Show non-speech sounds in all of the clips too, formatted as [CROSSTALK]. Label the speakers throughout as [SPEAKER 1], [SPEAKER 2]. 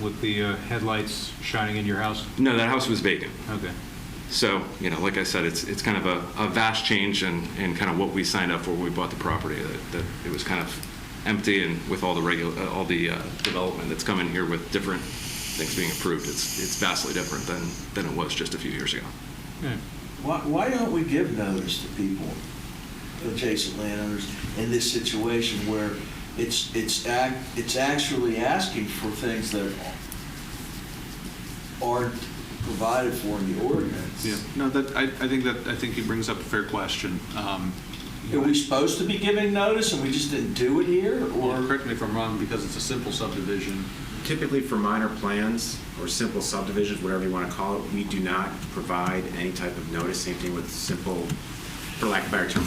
[SPEAKER 1] with the uh, headlights shining in your house?
[SPEAKER 2] No, that house was vacant.
[SPEAKER 1] Okay.
[SPEAKER 2] So, you know, like I said, it's, it's kind of a, a vast change in, in kind of what we signed up for when we bought the property, that, that it was kind of empty and with all the regular, all the uh, development that's come in here with different things being approved, it's, it's vastly different than, than it was just a few years ago.
[SPEAKER 1] Yeah.
[SPEAKER 3] Why, why don't we give notice to people, adjacent landowners, in this situation where it's, it's act, it's actually asking for things that aren't provided for in the ordinance?
[SPEAKER 4] Yeah, no, that, I, I think that, I think he brings up a fair question. Um,
[SPEAKER 3] Are we supposed to be giving notice and we just didn't do it here,
[SPEAKER 4] Or,
[SPEAKER 3] or?
[SPEAKER 4] correct me if I'm wrong, because it's a simple subdivision,
[SPEAKER 5] Typically for minor plans or simple subdivisions, whatever you want to call it, we do not provide any type of notice. Same thing with simple, for lack of a better term,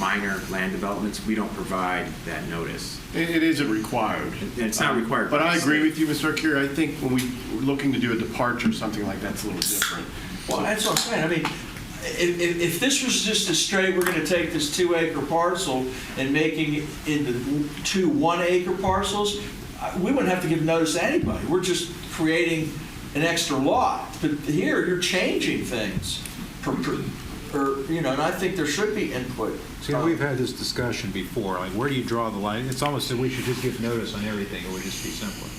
[SPEAKER 5] minor land developments. We don't provide that notice.
[SPEAKER 6] It it isn't required.
[SPEAKER 5] It- it's not required.
[SPEAKER 6] Uh, But I agree with you, Mr. Arcuri. I think when we, we're looking to do a departure, something like that's a little different.
[SPEAKER 3] Well, that's what I'm saying, I mean, if, if, if this was just a straight, we're gonna take this two acre parcel and making it into two one acre parcels, I- we wouldn't have to give notice to anybody, we're just creating an extra lot. But here, you're changing things, per, per, or, you know, and I think there should be input.
[SPEAKER 1] See, we've had this discussion before, like, where do you draw the line? It's almost that we should just give notice on everything, it would just be simpler.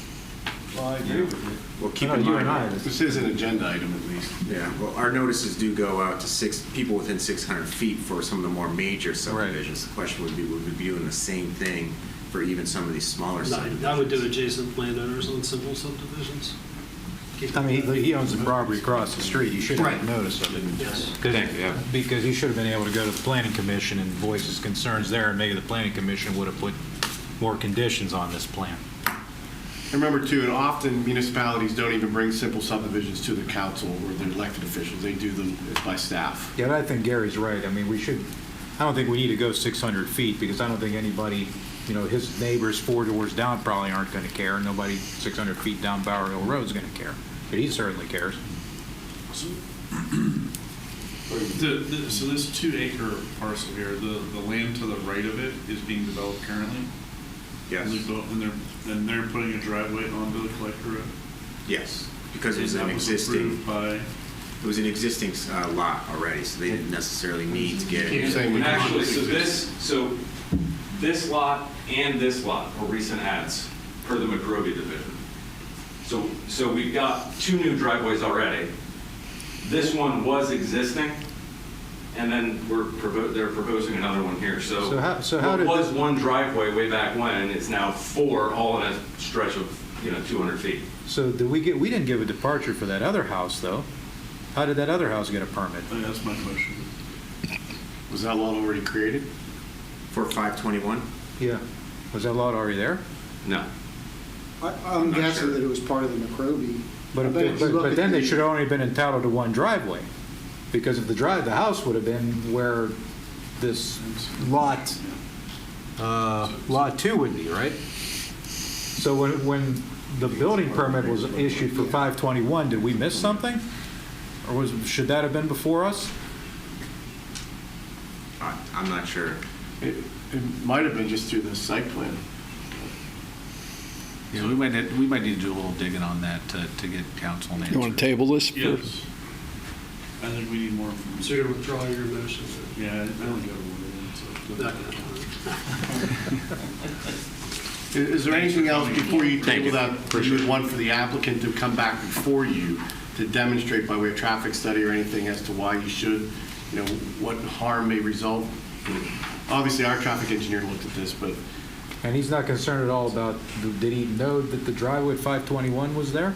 [SPEAKER 3] Well, I agree with you.
[SPEAKER 5] Well, keep
[SPEAKER 1] No,
[SPEAKER 5] in
[SPEAKER 1] you and I,
[SPEAKER 5] mind,
[SPEAKER 1] this-
[SPEAKER 6] This is an agenda item at least.
[SPEAKER 5] yeah, well, our notices do go out to six, people within 600 feet for some of the more major subdivisions. The question would be, would we be doing the same thing for even some of these smaller subdivisions?
[SPEAKER 7] I would do adjacent landowners on simple subdivisions. Keep
[SPEAKER 1] I
[SPEAKER 7] it
[SPEAKER 1] mean,
[SPEAKER 7] that.
[SPEAKER 1] he- he owns a property across the street, he should have
[SPEAKER 7] Right.
[SPEAKER 1] notice of it.
[SPEAKER 7] Yes.
[SPEAKER 2] Thank you, yeah.
[SPEAKER 1] Because he should have been able to go to the planning commission and voice his concerns there, and maybe the planning commission would have put more conditions on this plan.
[SPEAKER 6] And Remember too, and often municipalities don't even bring simple subdivisions to the council or their elected officials. They do them by staff.
[SPEAKER 1] Yeah, but I think Gary's right. I mean, we should, I don't think we need to go 600 feet because I don't think anybody, you know, his neighbors four doors down probably aren't going to care. and Nobody 600 feet down Bower Hill Road's going to care. But he certainly cares.
[SPEAKER 8] The, the, so this two acre parcel here, the, the land to the right of it is being developed currently?
[SPEAKER 5] Yes.
[SPEAKER 8] And they're, built- and they're, and they're putting a driveway onto the collector road?
[SPEAKER 5] Yes, because it was
[SPEAKER 8] And
[SPEAKER 5] an
[SPEAKER 8] that was
[SPEAKER 5] existing,
[SPEAKER 8] approved By,
[SPEAKER 5] it was an existing uh, lot already, so they didn't necessarily need to get.
[SPEAKER 6] You're saying we can-
[SPEAKER 9] Actually, so this, so this lot and this lot were recent ads per the McRobey division. So, so we've got two new driveways already. This one was existing, and then we're, provo- they're proposing another one here, so.
[SPEAKER 1] So how- so how did-
[SPEAKER 9] What was one driveway way back when, it's now four, all in a stretch of, you know, 200 feet.
[SPEAKER 1] So did we get, we didn't give a departure for that other house, though. How did that other house get a permit?
[SPEAKER 8] I think that's my question.
[SPEAKER 6] Was that law already created?
[SPEAKER 5] For 521?
[SPEAKER 1] Yeah. Was that lot already there?
[SPEAKER 9] No.
[SPEAKER 10] I- I'm
[SPEAKER 5] Not sure.
[SPEAKER 10] guessing that it was part of the McRobey. I bet
[SPEAKER 1] But, but,
[SPEAKER 10] if you look
[SPEAKER 1] but
[SPEAKER 10] at
[SPEAKER 1] then they
[SPEAKER 10] the-
[SPEAKER 1] should have only been entitled to one driveway, because if the drive, the house would have been where this lot, uh, lot two would be, right? So when, when the building permit was issued for 521, did we miss something? Or was, should that have been before us?
[SPEAKER 5] I- I'm not sure.
[SPEAKER 6] It, it might have been just through the site plan.
[SPEAKER 4] so we might, need- we might need to do a little digging on that to, to get council and
[SPEAKER 11] You want to
[SPEAKER 4] answer.
[SPEAKER 11] table this? for-
[SPEAKER 8] Yes. I think we need more
[SPEAKER 7] So
[SPEAKER 8] information.
[SPEAKER 7] you're gonna withdraw your motion?
[SPEAKER 8] Yeah, I I don't get it. so-
[SPEAKER 7] Not gonna.
[SPEAKER 6] I- Is there anything else before you
[SPEAKER 2] Thank
[SPEAKER 6] table
[SPEAKER 2] you.
[SPEAKER 6] that, that you would want for the applicant to come back before you to demonstrate by way of traffic study or anything as to why you should, you know, what harm may result? Obviously, our traffic engineer looked at this, but
[SPEAKER 1] And he's not concerned at all about, did he know that the driveway at 521 was there?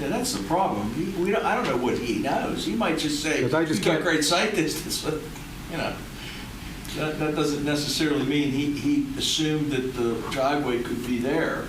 [SPEAKER 3] Yeah, that's the problem, He- we, don't- I don't know what he knows, he might just say, you
[SPEAKER 1] 'Cause I just
[SPEAKER 3] got
[SPEAKER 1] can't-
[SPEAKER 3] great sight [LAUGHS] distance, but, you know. That, that doesn't necessarily mean he, he assumed that the driveway could be there.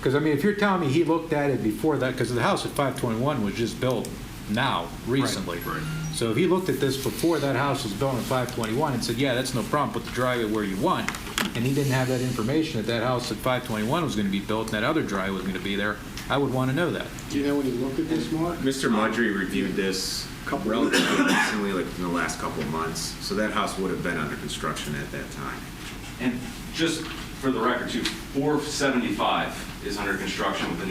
[SPEAKER 1] Because, I mean, if you're telling me he looked at it before that, because the house at 521 was just built now, recently.
[SPEAKER 4] right.
[SPEAKER 1] So if he looked at this before that house was built in 521 and said, yeah, that's no problem, put the driveway where you want, and he didn't have that information that that house at 521 was going to be built and that other driveway was going to be there, I would want to know that.
[SPEAKER 10] Do you know when he looked at this, Mark?
[SPEAKER 5] Mr. Mudry reviewed this relatively recently, like in the last couple of months, so that house would have been under construction at that time.
[SPEAKER 9] And just for the record, too, 475 is under construction with the new